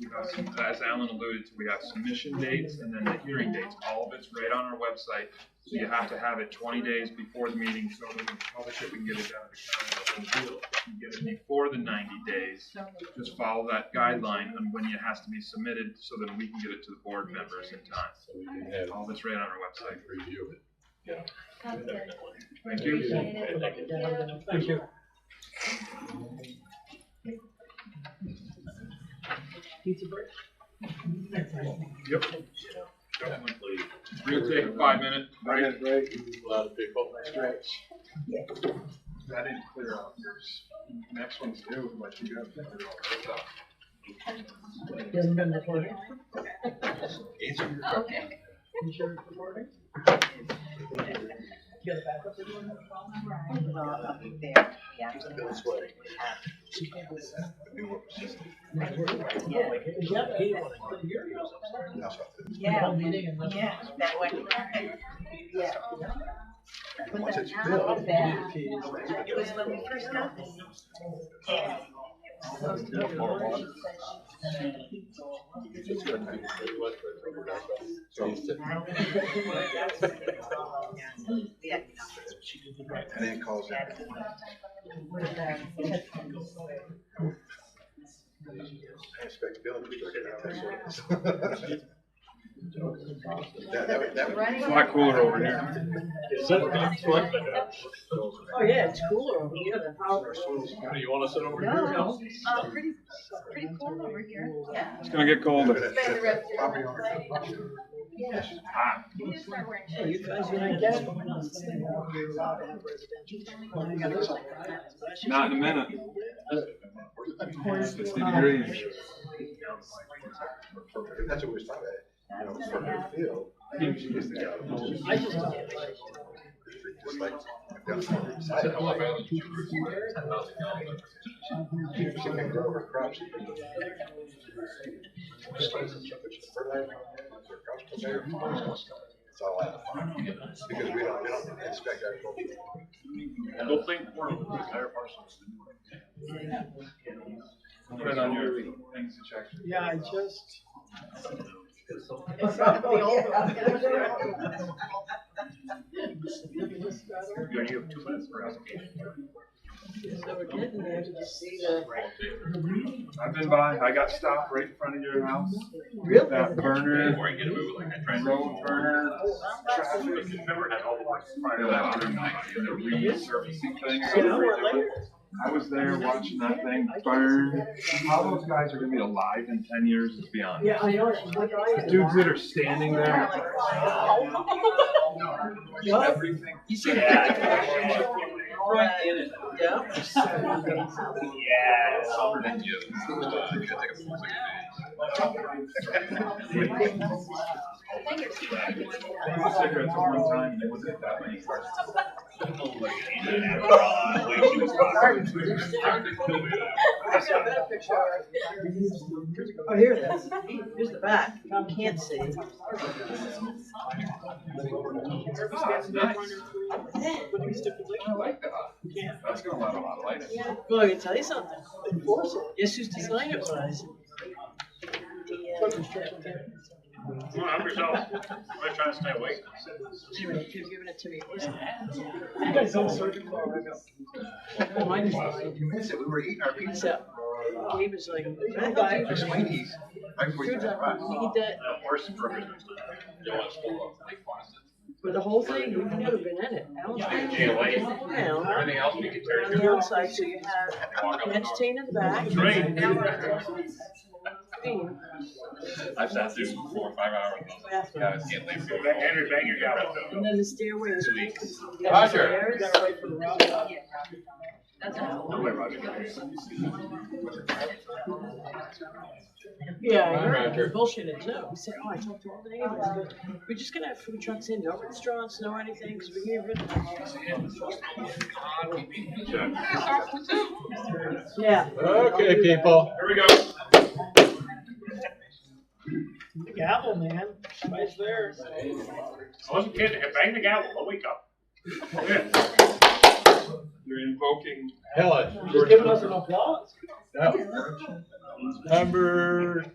we have some, Uh, as Alan alluded to, we have submission dates and then the hearing dates, all of it's right on our website. So you have to have it twenty days before the meeting, so we can publish it, we can get it out of the county. If you Get it before the ninety days, just follow that guideline on when it has to be submitted, so that we can get it to the board members in time. So we can have All this right on our website. time to review it. Sounds good. Thank you. Appreciate it. Thank you. Yep. Definitely. We'll take a five minute break. right. A uh, lot of people. stretch. That didn't clear out yours. Next one's due, but you got to clear all You haven't been recording? Okay. You sure it's recording? You got a backup video on that? That's why. Is that paid one? Put your ears up. The whole meeting and let- yeah, that way. Yeah. Once it's built. It was when we first got this. Yeah. It was supposed to be orange, but she It's gonna be- it was, but we're not going. So it's said- Yeah. And then calls Oh, it. I expect Bill to be looking at this one. That, that would, that would. It's a lot cooler over here. Oh, yeah, it's cooler over here than Howard. You wanna sit over No, here? no, uh, pretty, pretty cool over here, yeah. It's gonna get colder. Spend the rest of your I'll be life. on. Yeah. Hot. You just start wearing Hey, you shorts. guys, when I get. Not Not in a minute. It's the degrees. That's what we was talking about, you know, for her field. She is the guy. I just. Just like, I've got something excited. I'm like, She she can grow her crops. She can- Just like, fertilizer, her crops come there, It's all out of farm. Because we don't, we don't expect agriculture. Don't think more of Put it on your things to check. Yeah, I just. Yeah, you have two minutes for asking. So we're getting there to see the. I've been by, I got stopped right in front of your house. Really? That burner, Before I get moved, like I tried. road burner, Traffic, remember had all the lights fired out during night, and they're resurfacing things. An hour later. I was there watching that thing burn. How those guys are gonna be alive in ten years is beyond. Yeah, I know. she's like, I The dudes that are standing there. What? Everything. You see? Yeah. Right in it. Yeah. It's summer than you. Uh, you gotta take a full They were cigarettes at one time, and it wasn't that many cars. I got a better picture. Oh, here it is. Here's the back. You can't see. That's nice. I like that. That's gonna let a lot of light. in. Well, I can tell you something. Enforce it. Guess whose design it was? Well, I'm yourself. I'm trying to stay awake. Anyway, if you've given it to me. You guys don't surgical. Mine is mine. You miss it, we were eating our pizza. So, Gabe is like, "What the Our hell did you do?" Sweeney's, right before you drive by. He did, Horse burgers. You want to school up, like, fast. but the whole thing, you could have been in it. Alan's Yeah, like, yeah, like- "Well, Everything else we could tear On the outside, so you have Walk up. entertain in the back. Drink. Green. I've sat through four or five hours. Bathroom. Guys, can't leave. Henry Banger got it. And then the stairway is. Roger. That's all. No way, Roger. Yeah, Hi, you're Roger. bullshitting too. We said, oh, I talked to all the neighbors. We're just gonna have food trucks in, no restaurants, no anything, because we get rid of. Yeah. Okay, people. Here we go. Gavel, man. Right there. I wasn't kidding. Bang the gavel. I'll wake up. You're invoking Helen. Just giving us an applause. Number